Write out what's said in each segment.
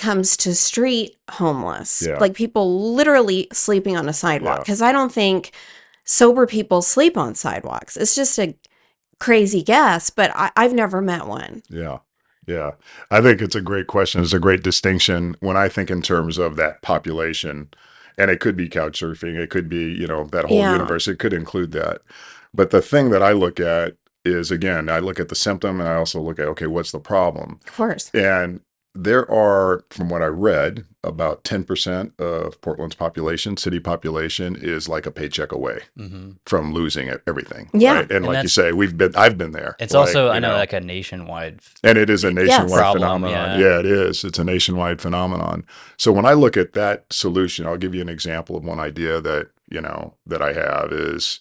comes to street homeless, Yeah. like people literally sleeping on a sidewalk. Yeah. Because I don't think sober people sleep on sidewalks. It's just a crazy guess, but I, I've never met one. Yeah. Yeah. I think it's a great question. It's a great distinction when I think in terms of that population. And it could be couch surfing, it could be, you know, that whole Yeah. universe, it could include that. But the thing that I look at is again, I look at the symptom and I also look at, okay, what's the problem? Of course. And there are, from what I read, about 10% of Portland's population, city population, is like a paycheck away hmm from losing e-, everything. Yeah. And, like you that's- say, we've been, I've been there. It's Like, also I you know, like a nationwide. f- and it is a nationwide Problem, phenomenon. yeah. Yeah. it is. It's a nationwide phenomenon. So when I look at that solution, I'll give you an example of one idea that, you know, that I have is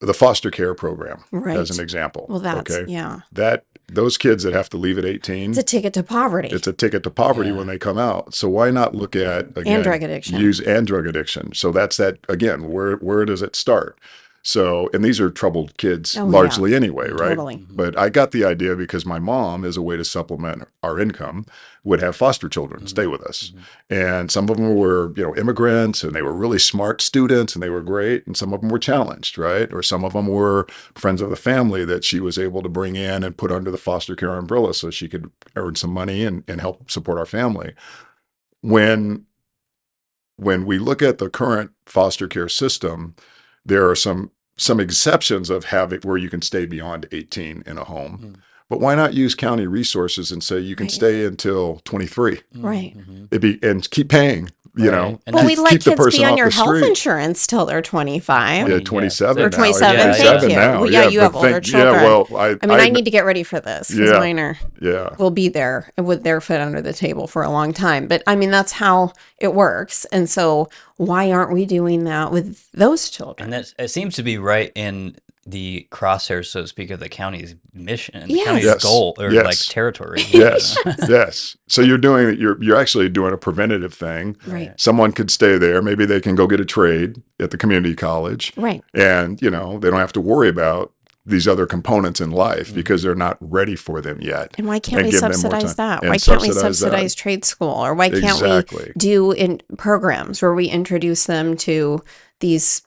the foster care program Right. as an example. well, that's, okay. yeah. That those kids that have to leave at 18, It's a ticket to poverty it's a ticket to poverty Yeah. when they come out. So why not look at again and drug addiction. use and drug addiction. So that's that again, where where does it start? So and these are troubled kids Oh, yeah. largely anyway, right? Mm. Totally. Mm-hmm. But I got the idea because my mom, as a way to supplement our income, would have foster children Mhm. stay with us. Mhm. And some of them were, you know, immigrants and they were really smart students and they were great. And some of them were challenged, right? Or some of them were friends of the family that she was able to bring in and put under the foster care umbrella so she could earn some money and, and help support our family. When when we look at the current foster care system, there are some some exceptions of having where you can stay beyond 18 in a home. Hmm. Mhm. But why not use county resources and say you can Right. stay until 23 Right. Mhm. it be, and keep paying, you know? Right. And Well, keep- we let keep the kids be person on off your the health street. insurance till they're 25. Yeah, Yeah, 27 or now. 27, thank 27 you. now. Well, yeah, you but have older Yeah, children. well, I, I mean, I, need to get ready for this because Yeah. mine are yeah, will be there with their foot under the table for a long time. But I mean, that's how it works. And so, why aren't we doing that with those children? And that's it seems to be right in the crosshairs, so to speak, of the county's mission, the county's Yes. goal, or like Yes. territory. yes, yes. So you're doing, you're, you're actually doing a preventative thing. Right. Someone could stay there. Maybe they can go get a trade at the community college. Right. and you know they don't have to worry about these other components in life Mhm. because they're not ready for them yet And why can't And we give them more subsidize time. that? And Why can't we subsidize that. subsidize trade school? Or why can't we exactly do in programs where we introduce them to these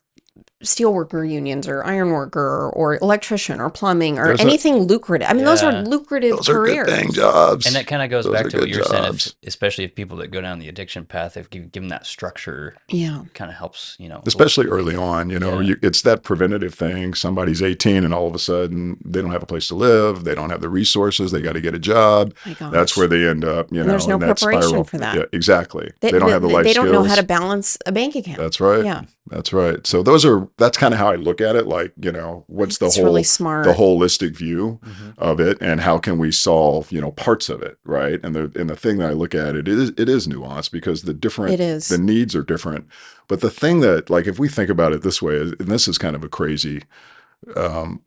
steelworker unions or ironworker or electrician or plumbing or Those are- anything lucrative. I mean, those Yeah. are lucrative those are careers. good thing jobs And that kind of goes Those back are to what good you're saying, if, jobs. especially if people that go down the addiction path, if you give them that structure, yeah. kind of helps, you know. especially early on you know Yeah. you, it's that preventative thing somebody's 18 and all of a sudden they don't have a place to live they don't have the resources they got to get a job My God. that's where they end up you And know there's no in that preparation spiral. for that. yeah, exactly they, don't have the life They don't know skills how to balance a bank account. that's right Yeah. that's right so those are that's kind of how i look at it like you know what's the it's whole really smart. the holistic view Mhm. of it and how can we solve you know parts of it right and the and the thing that i look at it is it is nuanced because the different It is. the needs are different but the thing that like if we think about it this way and this is kind of a crazy um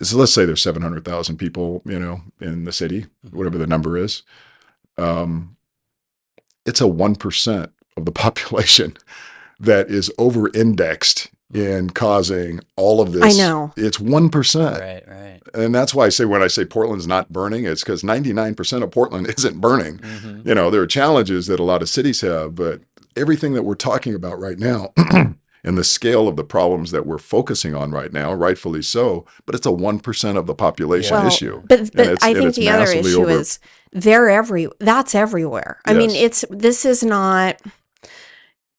so let's say there's 700,000 people you know in the city whatever the number is um it's a 1% of the population that is over indexed in causing all of this I know. it's 1% Right, right. and that's why I say when I say Portland's not burning, it's because 99% of Portland isn't burning. Mhm. You know, there are challenges that a lot of cities have, but everything that we're talking about right now and the scale of the problems that we're focusing on right now, rightfully so, but it's a 1% of the population Well, issue. But, but it's- I and think it's the other massively issue over- is they're every that's everywhere. I mean, Yes. it's this is not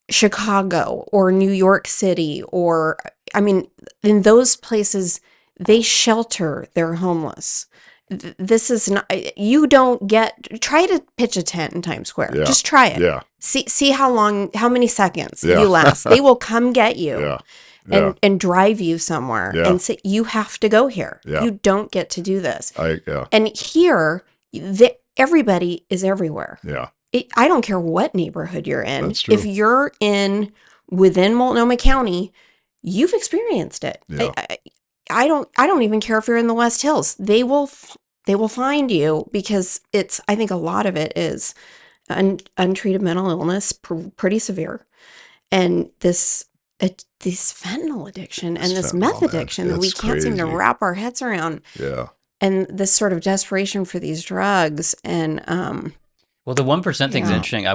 Chicago or New York City or I mean, in those places they shelter their homeless. Th- This is not you don't get try to pitch a tent in Times Square. Yeah. Just try it. Yeah, See see how long how many seconds Yeah. you last. they will come get you yeah, and yeah. and drive you somewhere Yeah. and say you have to go here. Yeah. You don't get to do this. I, yeah, And here, the, everybody is everywhere. yeah, It, I don't care what neighborhood you're in. That's true. If you're in within Multnomah County, you've experienced it. I- Yeah. I, I don't. I don't even care if you're in the West Hills. They will. f- They will find you because it's. I think a lot of it is un, untreated mental illness, pr- pretty severe, and this. It, this fentanyl addiction and This this fentanyl, meth man. addiction that we It's can't seem to crazy. wrap our heads around yeah. and this sort of desperation for these drugs and um Well, the one percent thing's Yeah. interesting. I